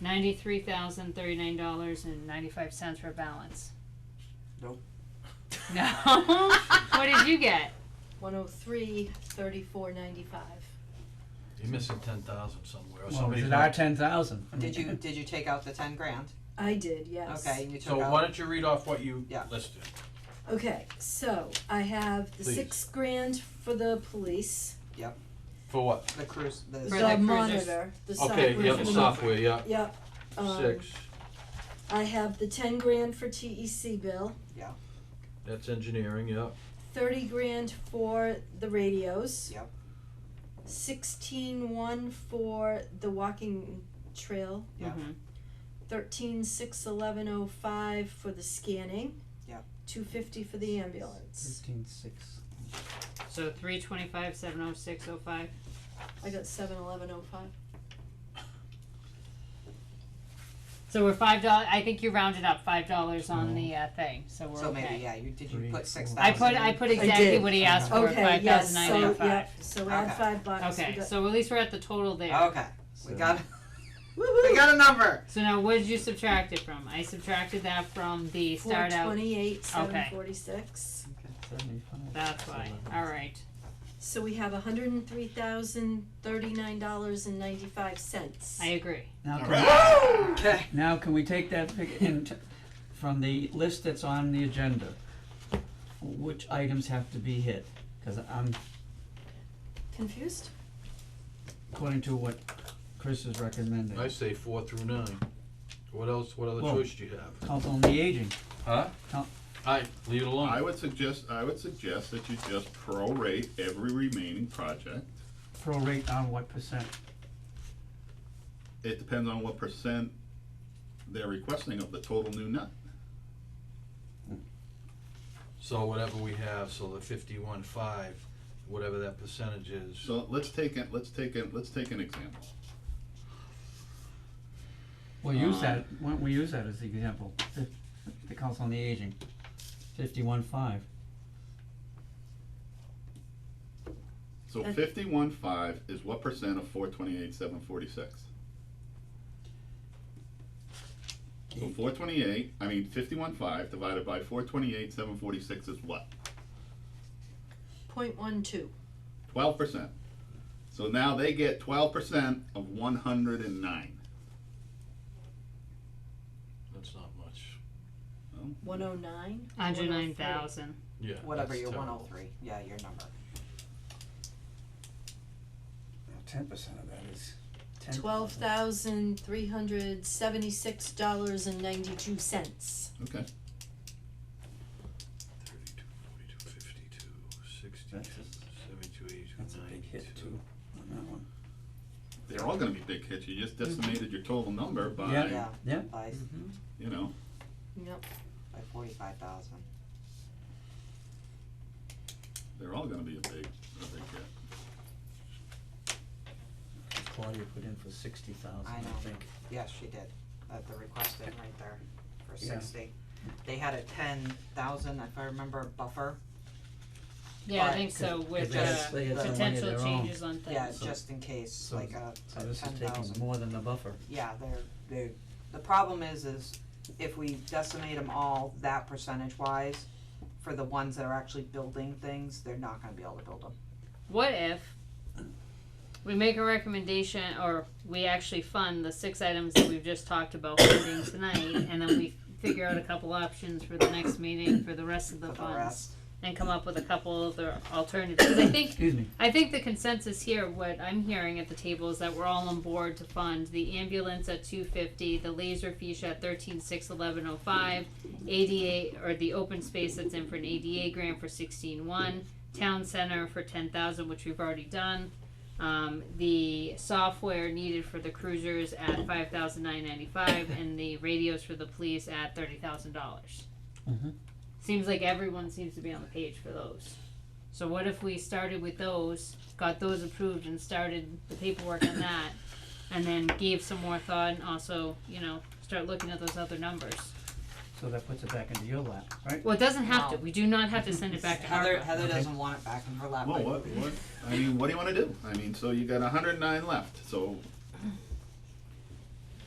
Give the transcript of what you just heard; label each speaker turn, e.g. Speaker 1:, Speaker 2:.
Speaker 1: ninety-three thousand thirty-nine dollars and ninety-five cents for balance.
Speaker 2: Nope.
Speaker 1: No. what did you get?
Speaker 3: One oh three, thirty-four ninety-five.
Speaker 4: You're missing ten thousand somewhere, or
Speaker 2: Well, was
Speaker 4: somebody's
Speaker 2: it our
Speaker 4: not.
Speaker 2: ten thousand?
Speaker 5: Did you, did you take out the ten grand?
Speaker 3: I did, yes.
Speaker 5: Okay, and you
Speaker 4: So
Speaker 5: took
Speaker 4: why
Speaker 5: out,
Speaker 4: don't you read off what you
Speaker 5: Yeah.
Speaker 4: listed?
Speaker 3: Okay, so I have the
Speaker 4: Please.
Speaker 3: six grand for the police,
Speaker 4: For what?
Speaker 5: the cruise, the.
Speaker 1: For
Speaker 3: the
Speaker 1: the cruisers.
Speaker 3: monitor, the software.
Speaker 4: Okay, yeah,
Speaker 3: for
Speaker 4: the
Speaker 3: the-
Speaker 4: software, yeah,
Speaker 3: Yep, um,
Speaker 4: six,
Speaker 3: I have the ten grand for TEC bill,
Speaker 4: that's engineering, yeah,
Speaker 3: thirty grand for the radios.
Speaker 5: Yep.
Speaker 3: Sixteen one for the walking trail.
Speaker 5: Yeah.
Speaker 1: Mhm.
Speaker 3: thirteen six eleven oh five for the scanning.
Speaker 5: Yeah.
Speaker 3: Two fifty for the ambulance.
Speaker 2: Fifteen six.
Speaker 1: So three twenty-five seven oh six oh five.
Speaker 3: I got seven eleven oh five.
Speaker 1: So we're five dollars. I think you rounded up five dollars on the uh, thing. So we're
Speaker 5: So
Speaker 1: okay.
Speaker 5: maybe, yeah, you, did
Speaker 2: Three,
Speaker 5: you put six
Speaker 2: four.
Speaker 5: thousand?
Speaker 1: I put I put exactly
Speaker 3: did.
Speaker 1: what he asked for
Speaker 3: Oh, Okay,
Speaker 1: five
Speaker 3: yes,
Speaker 1: thousand nine
Speaker 3: so,
Speaker 1: ninety five.
Speaker 3: yep, so add
Speaker 5: Okay.
Speaker 3: five bucks. We Oh.
Speaker 1: Okay,
Speaker 3: got-
Speaker 1: so at least we're at the total there.
Speaker 5: Okay, we got, we got a number.
Speaker 1: So now what did you subtract it from? I subtracted that from the
Speaker 3: Four
Speaker 1: start out.
Speaker 3: twenty-eight, seven
Speaker 1: Okay.
Speaker 3: forty-six.
Speaker 2: Seventy-five.
Speaker 1: That's why. All right.
Speaker 3: So we have a hundred and three thousand, thirty-nine dollars and ninety-five cents.
Speaker 1: I agree.
Speaker 2: Now can,
Speaker 5: Okay,
Speaker 2: now can we take that fig- and t- from the list that's on the agenda? Which items have to be hit? Cause I'm,
Speaker 3: Confused?
Speaker 2: according to what Chris is recommending,
Speaker 4: I say four through nine. What else, what other
Speaker 2: Well-
Speaker 4: choice do you have?
Speaker 2: Council on the Aging,
Speaker 4: Huh?
Speaker 2: No.
Speaker 4: I, leave it
Speaker 6: I
Speaker 4: alone.
Speaker 6: would suggest, I would suggest that you just prorate every remaining project.
Speaker 2: prorate on what percent?
Speaker 6: It depends on what percent they're requesting of the total new nut.
Speaker 4: So whatever we have, so the fifty-one, five, whatever that percentage is.
Speaker 6: So let's take it, let's take it, let's take an example.
Speaker 2: We'll
Speaker 7: Uh,
Speaker 2: use
Speaker 6: Um,
Speaker 2: that, why don't we use that as the example, the, the Council on the Aging, fifty-one five.
Speaker 6: So
Speaker 3: Okay.
Speaker 6: fifty-one five is what percent of four twenty-eight, seven forty-six? So four twenty-eight, I mean fifty-one five divided by four twenty-eight, seven forty-six is what?
Speaker 3: Point one two.
Speaker 6: Twelve percent. So now they get twelve percent of one hundred and nine.
Speaker 4: That's not much.
Speaker 3: One oh nine. oh
Speaker 1: Hundred nine thousand.
Speaker 4: Yeah.
Speaker 5: whatever
Speaker 4: that's
Speaker 5: your one
Speaker 4: terrible.
Speaker 5: oh three, yeah, your number.
Speaker 7: Ten percent of that is ten.
Speaker 3: Twelve thousand, three hundred, seventy-six dollars and ninety-two cents.
Speaker 6: Okay,
Speaker 4: 32, 42, 52, 60,
Speaker 7: That's a-
Speaker 4: 72, 82,
Speaker 7: That's a big hit
Speaker 4: 92.
Speaker 7: too, on that one.
Speaker 6: they're all gonna be big hits, you just decimated your total number by,
Speaker 5: Yeah.
Speaker 2: Yeah.
Speaker 5: By,
Speaker 2: Mm-hmm.
Speaker 6: you know,
Speaker 3: Yep,
Speaker 5: by forty-five thousand.
Speaker 6: they're all gonna be a big, a big hit.
Speaker 2: Claudia put in for sixty thousand,
Speaker 5: I know.
Speaker 2: I think.
Speaker 5: Yes, she did, at the request in right there for
Speaker 2: Yeah.
Speaker 5: sixty. They had a ten thousand, if I remember, buffer,
Speaker 1: Yeah, I
Speaker 5: But-
Speaker 1: think so.
Speaker 2: Cause
Speaker 1: With
Speaker 2: they had-
Speaker 1: uh,
Speaker 2: they had some money of
Speaker 1: potential
Speaker 2: their own.
Speaker 1: changes on things.
Speaker 5: yeah,
Speaker 2: So-
Speaker 5: just in case,
Speaker 2: so-
Speaker 5: like a
Speaker 2: So
Speaker 5: ten
Speaker 2: this is taking
Speaker 5: thousand.
Speaker 2: more than the buffer.
Speaker 5: Yeah, they're, they're, the problem is, is if we decimate them all that percentage wise, for the ones that are actually building things, they're not gonna be able to build them.
Speaker 1: What if we make a recommendation or we actually fund the six items that we've just talked about funding tonight and then we figure out a couple options for the next meeting for the rest of the
Speaker 5: For the
Speaker 1: funds
Speaker 5: rest.
Speaker 1: and come up with a couple other alternatives. 'Cause I think
Speaker 2: Excuse me,
Speaker 1: I think the consensus here, what I'm hearing at the table is that we're all on board to fund the ambulance at two fifty, the laser fiche at thirteen six eleven oh five, ADA, or the open space that's in for an ADA grant for sixteen one, town center for ten thousand, which we've already done. Um, the software needed for the cruisers at five thousand nine ninety-five, and the radios for the police at thirty thousand dollars.
Speaker 2: Mhm.
Speaker 1: Seems like everyone seems to be on the page for those. So what if we started with those, got those approved and started the paperwork on that, and then gave some more thought and also, you know, start looking at those other numbers?
Speaker 2: so that puts it back into your lap, right?
Speaker 1: Well, it doesn't have to,
Speaker 5: No.
Speaker 1: we do not have to send it back to
Speaker 5: Heather,
Speaker 1: ARPA.
Speaker 5: Heather
Speaker 2: Okay.
Speaker 5: doesn't want it back in her lap.
Speaker 6: Well,
Speaker 5: but-
Speaker 6: what, what, I mean, what do you wanna do? I mean, so you got hundred and nine left, so